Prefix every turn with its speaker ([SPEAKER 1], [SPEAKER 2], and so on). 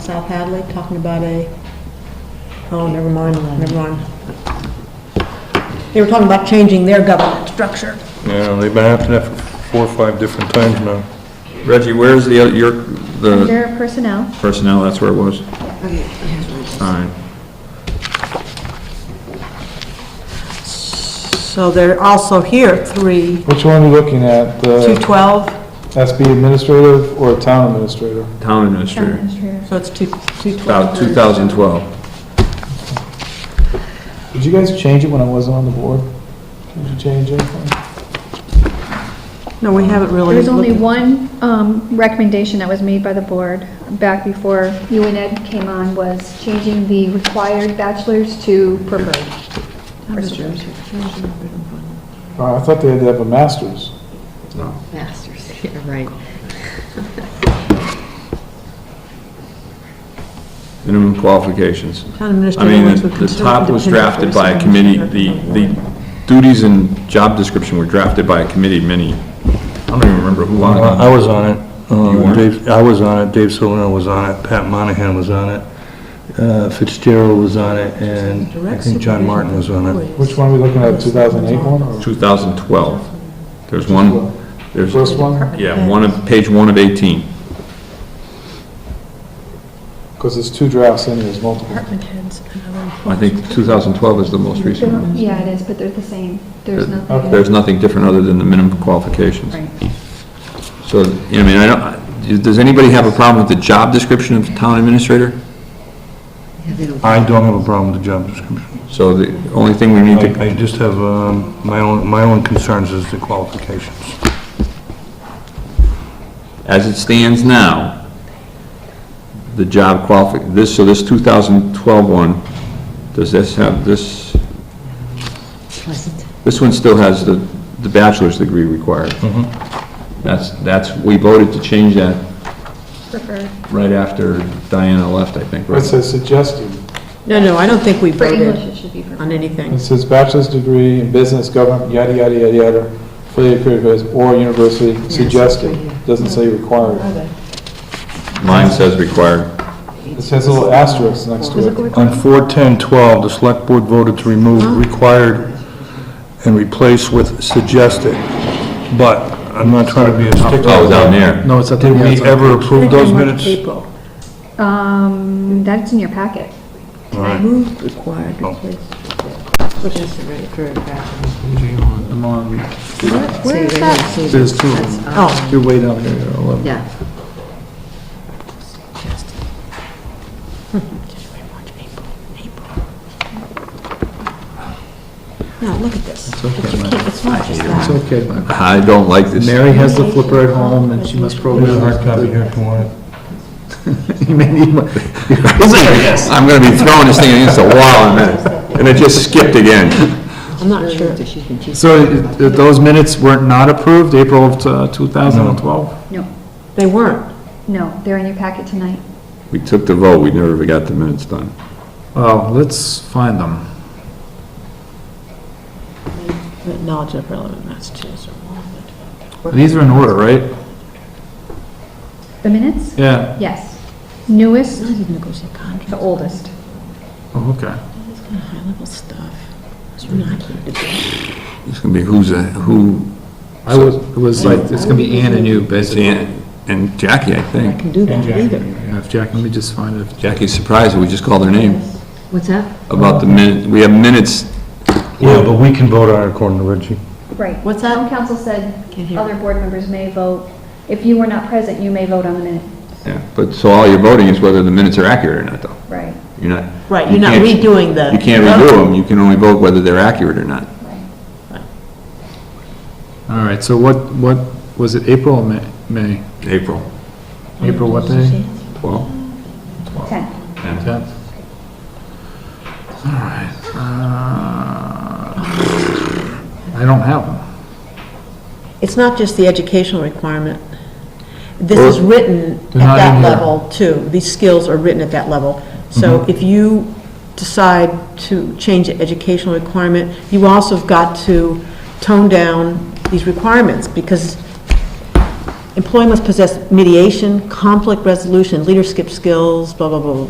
[SPEAKER 1] South Hadley, talking about a, oh, never mind, never mind. They were talking about changing their government structure.
[SPEAKER 2] Yeah, they've been after that for four or five different times now. Reggie, where's the, other- your, the
[SPEAKER 3] Under personnel,
[SPEAKER 2] personnel, that's where it was? Alright.
[SPEAKER 1] So they're also here, three,
[SPEAKER 4] Which one are you looking at? uh,
[SPEAKER 1] two
[SPEAKER 4] The
[SPEAKER 1] twelve,
[SPEAKER 4] SB administrative or town administrator?
[SPEAKER 2] Town
[SPEAKER 3] town
[SPEAKER 2] administrator,
[SPEAKER 3] administrator.
[SPEAKER 1] so it's two, two twelve.
[SPEAKER 2] about 2012.
[SPEAKER 4] Did you guys change it when I wasn't on the board? Did you change anything?
[SPEAKER 1] No, we haven't really.
[SPEAKER 3] There's only
[SPEAKER 1] looked-
[SPEAKER 3] one um, recommendation that was made by the board back before you and Ed came on, was changing the required bachelor's to preferred.
[SPEAKER 4] Oh, I thought they had to have a master's.
[SPEAKER 5] Masters, yeah, right.
[SPEAKER 2] Minimum qualifications.
[SPEAKER 1] Town
[SPEAKER 2] I
[SPEAKER 1] administrator
[SPEAKER 2] mean,
[SPEAKER 1] ones
[SPEAKER 2] the
[SPEAKER 1] would
[SPEAKER 2] the
[SPEAKER 1] consider
[SPEAKER 2] top was
[SPEAKER 1] dependent
[SPEAKER 2] drafted by a
[SPEAKER 1] person.
[SPEAKER 2] committee, the, the duties and job description were drafted by a committee many, I don't even remember who on
[SPEAKER 6] I
[SPEAKER 2] it.
[SPEAKER 6] was on it.
[SPEAKER 2] You
[SPEAKER 6] Uh,
[SPEAKER 2] weren't?
[SPEAKER 6] Dave, I was on it, Dave Solano was on it, Pat Monahan was on it, uh, Fitzgerald was on it, and I
[SPEAKER 1] Direct
[SPEAKER 6] think John
[SPEAKER 1] supervision
[SPEAKER 6] Martin was on it.
[SPEAKER 4] Which one are we looking at, 2008 one or
[SPEAKER 2] 2012. There's one, there's,
[SPEAKER 4] first one?
[SPEAKER 2] yeah, one of, page one of 18.
[SPEAKER 4] Because there's two drafts in, there's multiple.
[SPEAKER 2] I think 2012 is the most recent one.
[SPEAKER 3] Yeah, it is, but they're the same. There's nothing.
[SPEAKER 2] There's nothing different other than the minimum qualifications. So, I mean, I don't, does anybody have a problem with the job description of town administrator?
[SPEAKER 5] Yeah, they don't-
[SPEAKER 6] I don't have a problem with the job description.
[SPEAKER 2] So the only thing we need to,
[SPEAKER 6] I I just have, um, my own, my own concerns is the qualifications.
[SPEAKER 2] as it stands now, the job qualifi, this, so this 2012 one, does this have, this,
[SPEAKER 5] Pleasant.
[SPEAKER 2] this one still has the, the bachelor's degree required.
[SPEAKER 4] Mm-hmm.
[SPEAKER 2] That's, that's, we voted to change that
[SPEAKER 3] Preferred.
[SPEAKER 2] right after Diana left, I think,
[SPEAKER 4] It
[SPEAKER 2] right?
[SPEAKER 4] says suggested.
[SPEAKER 1] No, no, I don't think we
[SPEAKER 3] For English,
[SPEAKER 1] voted
[SPEAKER 3] it should be
[SPEAKER 1] on
[SPEAKER 3] preferred.
[SPEAKER 4] It
[SPEAKER 1] anything.
[SPEAKER 4] says bachelor's degree in business, government, yada, yada, yada, yada, for the career goals, or university suggested. Doesn't say required.
[SPEAKER 2] Mine says required.
[SPEAKER 4] It says a little asterisk next to it.
[SPEAKER 6] On 41012, the select board voted to remove required and replace with suggested, but I'm not trying to be a stickler.
[SPEAKER 2] Oh, down there.
[SPEAKER 6] No, it's up there. Did we ever approve those minutes?
[SPEAKER 1] April.
[SPEAKER 3] Um, that's in your packet.
[SPEAKER 6] All right.
[SPEAKER 5] Moved, required, replaced. Which is the right for a bachelor's.
[SPEAKER 3] Where is
[SPEAKER 5] See, they
[SPEAKER 3] that?
[SPEAKER 5] don't see
[SPEAKER 4] There's
[SPEAKER 5] that.
[SPEAKER 4] two of
[SPEAKER 5] That's
[SPEAKER 4] them.
[SPEAKER 5] up.
[SPEAKER 4] You're way down here, you're 11.
[SPEAKER 5] Yeah.
[SPEAKER 1] Now, look at this. It's okay. It's not just that.
[SPEAKER 4] okay, Mike.
[SPEAKER 2] I don't like this.
[SPEAKER 4] Mary has the flipper at home, and she must program.
[SPEAKER 6] There's a hard copy here if you want it.
[SPEAKER 4] You may need one.
[SPEAKER 2] I'm gonna be throwing this thing against the wall in a minute, and it just skipped again.
[SPEAKER 1] I'm not sure.
[SPEAKER 5] After she's been teaching.
[SPEAKER 4] So it- it- those minutes were not approved, April of uh, 2012?
[SPEAKER 3] No,
[SPEAKER 1] They weren't.
[SPEAKER 3] no, they're in your packet tonight.
[SPEAKER 2] We took the vote, we never got the minutes done.
[SPEAKER 4] Well, Oh, let's find them.
[SPEAKER 1] Knowledge of relevant Massachusetts.
[SPEAKER 4] These are in order, right?
[SPEAKER 3] The minutes?
[SPEAKER 4] Yeah,
[SPEAKER 3] Yes. Newest,
[SPEAKER 1] Not even negotiate contracts.
[SPEAKER 3] the oldest.
[SPEAKER 4] oh, okay.
[SPEAKER 1] High-level stuff. It's not
[SPEAKER 2] It's gonna be who's, a- who,
[SPEAKER 4] I was, it was like, it's gonna be Ann and you, basically.
[SPEAKER 2] Dan and Jackie, I think.
[SPEAKER 1] can do that either.
[SPEAKER 4] Yeah, if Jack, let me just find it.
[SPEAKER 2] Jackie's surprised that we just called her name
[SPEAKER 5] What's that?
[SPEAKER 2] about the minute, we have minutes.
[SPEAKER 6] Yeah, but we can vote on it according to Reggie.
[SPEAKER 3] Right.
[SPEAKER 1] What's that?
[SPEAKER 3] Town council said
[SPEAKER 5] Can't hear.
[SPEAKER 3] other board members may vote. If you were not present, you may vote on the minute.
[SPEAKER 2] Yeah, But, so all you're voting is whether the minutes are accurate or not, though.
[SPEAKER 3] Right.
[SPEAKER 2] You're not.
[SPEAKER 1] Right,
[SPEAKER 2] you
[SPEAKER 1] you're not
[SPEAKER 2] can't-
[SPEAKER 1] redoing the.
[SPEAKER 2] You can't redo them, you can only vote whether they're accurate or not.
[SPEAKER 4] All right, so what, what, was it April or May? May?
[SPEAKER 2] April.
[SPEAKER 4] April what day?
[SPEAKER 2] Well,
[SPEAKER 3] 10.
[SPEAKER 4] Tenth. All right. uh, I don't have them.
[SPEAKER 1] It's not just the educational requirement. This is written at
[SPEAKER 4] They're not
[SPEAKER 1] that
[SPEAKER 4] in here. Mm-hmm.
[SPEAKER 1] level, too. These skills are written at that level. So if you decide to change the educational requirement, you also have got to tone down these requirements, because employee must possess mediation, conflict resolution, leadership skills, blah, blah, blah, blah,